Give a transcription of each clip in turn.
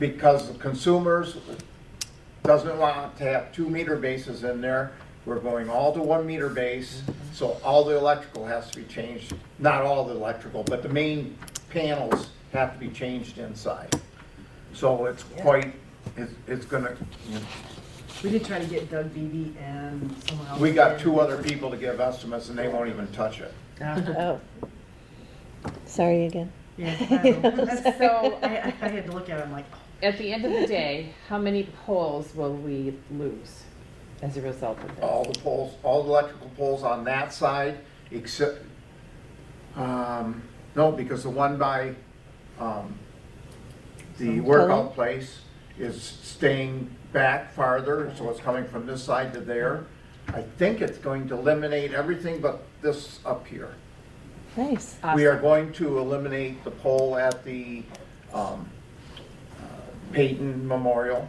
because the consumers doesn't want to have two meter bases in there. We're going all to one meter base, so all the electrical has to be changed, not all the electrical, but the main panels have to be changed inside. So it's quite, it's, it's gonna, We did try to get Doug Beebe and someone else. we got in. two other people to give estimates and they won't even touch it. Oh. Sorry again. Yeah, I know. That's so, I, I I had to look at him like, "Oh, At the end of the day, how many polls will we lose as a result of this? all the poles, all the electrical poles on that side, except, um, no, because the one by, um, the workout place is staying back farther, so it's coming from this side to there. I think it's going to eliminate everything but this up here. Nice. Oh, We are Awesome. going to eliminate the pole at the, um, uh, Peyton Memorial.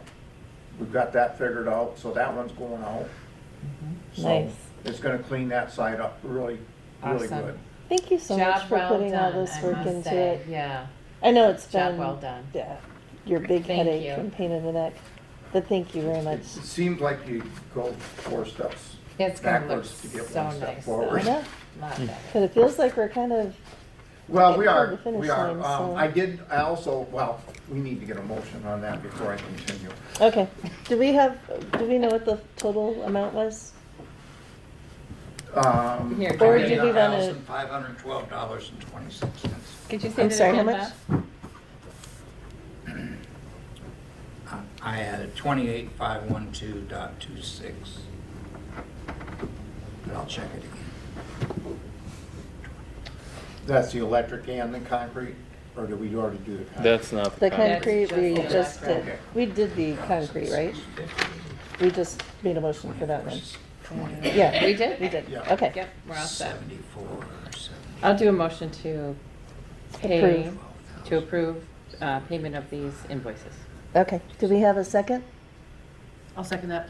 We've got that figured out, so that one's going out. So Mm-hmm. Nice. It's gonna clean that side up really, really Awesome. good. Thank you so much Job for well putting all done, this I work must into say. it. Yeah, I know it's job been well done. Yeah, your big Thank headache you. and pain in the neck. But thank you very much. It seems like you go four steps It's gonna look backwards to get so one step nice. though. forward. Hmm. Yeah. Lot better. But it feels like we're kind of Well, we Getting toward are, the finish we are. line, Um, so- I did, I also, well, we need to get a motion on that before I continue. okay. Do we have? Do we know what the total amount was? Um, Here, Or Corinne, did you want to- $1,512.26. could you say I'm that sorry, how again, much? Beth? Uh, I added 28512.26. But I'll check it again. That's the electric and the concrete, or did we already do the concrete? That's not The the kind. concrete we just- just did. Okay. We did the concrete, right? We just made a motion for that one. Yeah, We did? we did. Yeah. Okay. Yep, we're all set. 74, 70, I'll do a motion to pay, Approve. to approve uh, payment of these invoices. Okay. Do we have a second? I'll second that.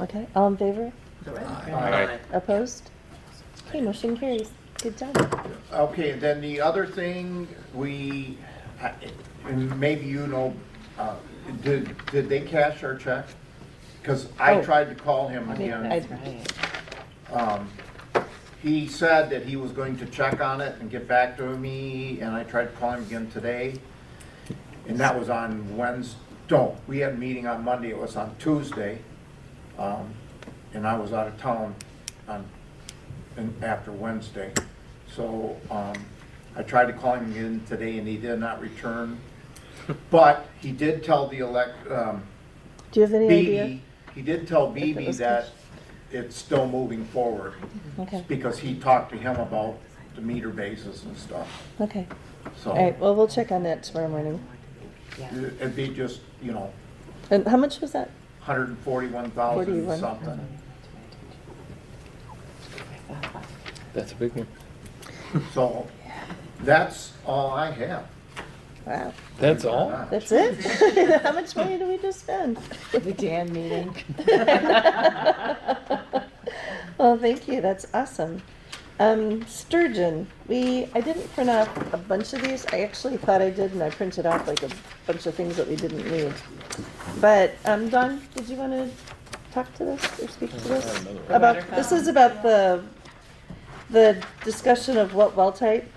Okay. All in favor? Is that right? Aye. Opposed? Okay, motion carries. Good job. Okay, then the other thing, we, I- and maybe you know, uh, did, did they cash our check? Because I Oh. tried to call him I think again. that's right. Um, He said that he was going to check on it and get back to me, and I tried to call him again today. And that was on Wednesday, no, we had a meeting on Monday, it was on Tuesday. Um, And I was out of town on, and after Wednesday. So, um, I tried to call him again today and he did not return. But he did tell the elect, um, Do you have any idea? Beebe, he did tell Beebe was that cash. it's still moving forward. Okay. Because he talked to him about the meter bases and stuff, Okay. so. All right. Well, we'll check on that tomorrow morning. It'd be just, you know, And how much was that? hundred and forty-one thousand 41. something. That's a big one. So, that's all I have. Wow. That's all? That's it? How much money do we just spend? The Dan meeting. Well, thank you. That's awesome. Um, sturgeon. We I didn't print off a bunch of these. I actually thought I did, and I printed off like a bunch of things that we didn't need. But um, Don, did you want to talk to this or speak to I this have another one. about this? Is about the the discussion of what well type.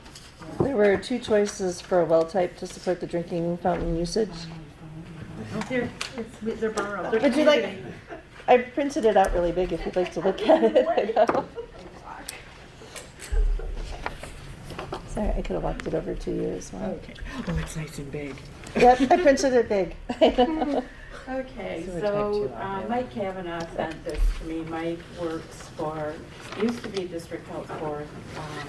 There were two choices for a well type to support the drinking fountain usage. Oh, here, it's, they're borrowed. They're Would you like? community. I printed it out really big. If you'd like to look at it. I know. Sorry, I could have walked it over to you as well. Okay. Oh, it's nice and big. Yep, I printed it big. Okay, So we're type two so out uh, there. Mike Kavanaugh sent this to me. Mike works for, used to be District Health Board um,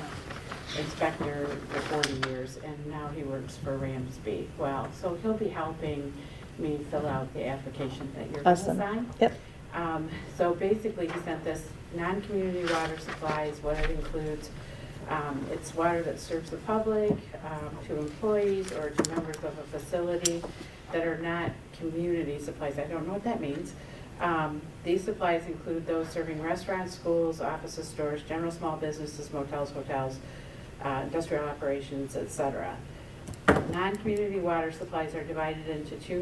Inspector for 40 years, and now he works for Ramsby. Well, so he'll be helping me fill out the application that you're going to Awesome. sign. Yep. Um, So basically, he sent this, non-community water supplies, what it includes. Um, It's water that serves the public, um, to employees or to members of a facility that are not community supplies. I don't know what that means. Um, These supplies include those serving restaurants, schools, offices, stores, general small businesses, motels, hotels, uh, industrial operations, et cetera. Non-community water supplies are divided into two